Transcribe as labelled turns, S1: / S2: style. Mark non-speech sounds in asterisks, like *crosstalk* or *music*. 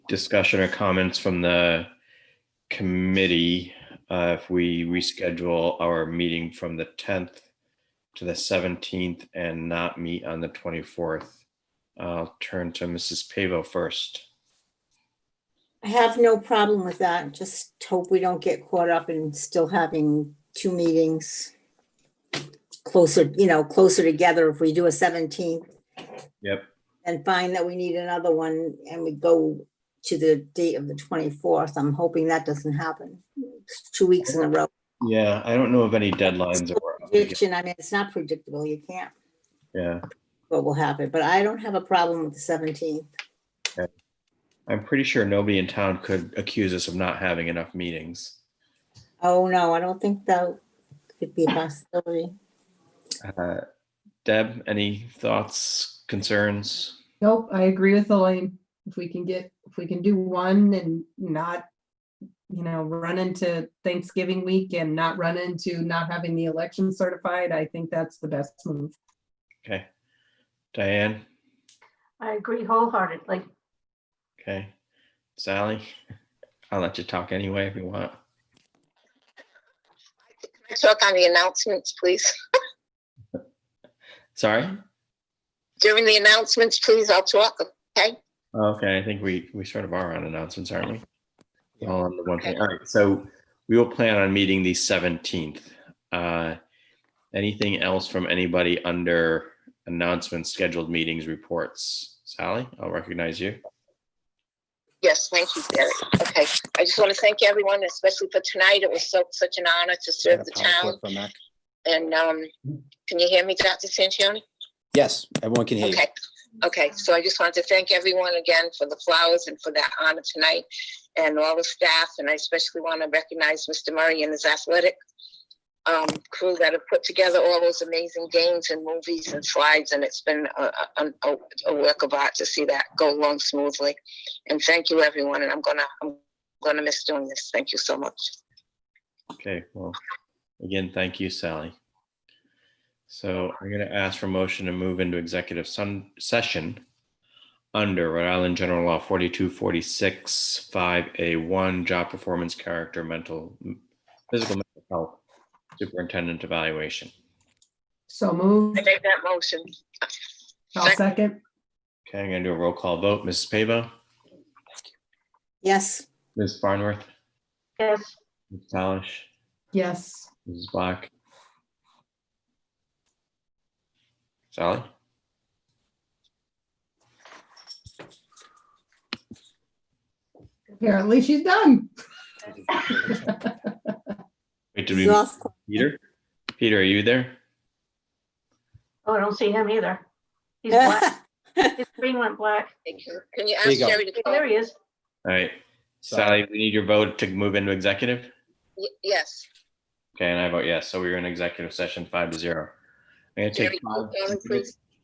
S1: discussion or comments from the committee, uh, if we reschedule our meeting from the tenth to the seventeenth and not meet on the twenty-fourth? I'll turn to Mrs. Pavo first.
S2: I have no problem with that. Just hope we don't get caught up in still having two meetings closer, you know, closer together if we do a seventeenth
S1: Yep.
S2: and find that we need another one and we go to the date of the twenty-fourth. I'm hoping that doesn't happen. It's Two weeks in a row.
S1: Yeah, I don't know of any deadlines or,
S2: Prediction, I mean, it's not predictable. You can't,
S1: yeah.
S2: what will happen, but I don't have a problem with the seventeenth.
S1: I'm pretty sure nobody in town could accuse us of not having enough meetings.
S2: Oh, no, I don't think that could be a possibility.
S1: Uh, Deb, any thoughts, concerns?
S3: Nope, I agree with Elaine. If we can get, if we can do one and not, you know, run into Thanksgiving week and not run into not having the election certified, I think that's the best move.
S1: Okay. Diane,
S4: I agree wholeheartedly.
S1: okay. Sally, *laughs* I'll let you talk anyway if you want.
S5: Can I talk on the announcements, please?
S1: Sorry?
S5: During the announcements, please, I'll talk, okay?
S1: Okay, I think we, we sort of are on announcements, aren't we? All on the one thing. All right, so we will plan on meeting the seventeenth. Uh, anything else from anybody under announcements, scheduled meetings, reports? Sally, I'll recognize you.
S5: Yes, thank you, Derek. Okay, I just want to thank everyone, especially for tonight. It was so, such an honor to serve the town. And, um, can you hear me, Dr. Sanchoni?
S6: Yes, everyone can hear you.
S5: Okay, okay, so I just wanted to thank everyone again for the flowers and for that honor tonight and all the staff, and I especially want to recognize Mr. Murray and his athletic um, crew that have put together all those amazing games and movies and slides, and it's been a, a- a, a work of art to see that go along smoothly. And thank you, everyone, and I'm gonna, I'm gonna miss doing this. Thank you so much.
S1: Okay, well, again, thank you, Sally. So I'm gonna ask for motion to move into executive sun, session under Rhode Island General Law forty-two forty-six five A one, job performance, character, mental, physical, mental health, superintendent evaluation.
S3: So move,
S5: I make that motion.
S3: I'll second,
S1: Okay, I'm gonna do a roll call vote. Mrs. Pavo,
S2: Yes,
S1: Ms. Barnworth,
S4: Yes,
S1: Ms. Talish,
S3: yes,
S1: Mrs. Black. Sally?
S3: apparently she's done.
S1: Wait, did
S2: he's
S1: we,
S2: off.
S1: Peter? Peter, are you there?
S4: oh, I don't see him either.
S2: *laughs*
S4: He's black, his screen went black.
S5: Thank you. Can you
S6: There
S5: ask
S6: you go.
S5: Jerry to call?
S4: There he is.
S1: All right, Sally, we need your vote to move into executive.
S5: Y- Yes.
S1: Okay, and I vote yes. So we're in executive session five to zero. I'm gonna
S5: Jerry,
S1: take
S5: can you
S1: five-
S5: call him, please?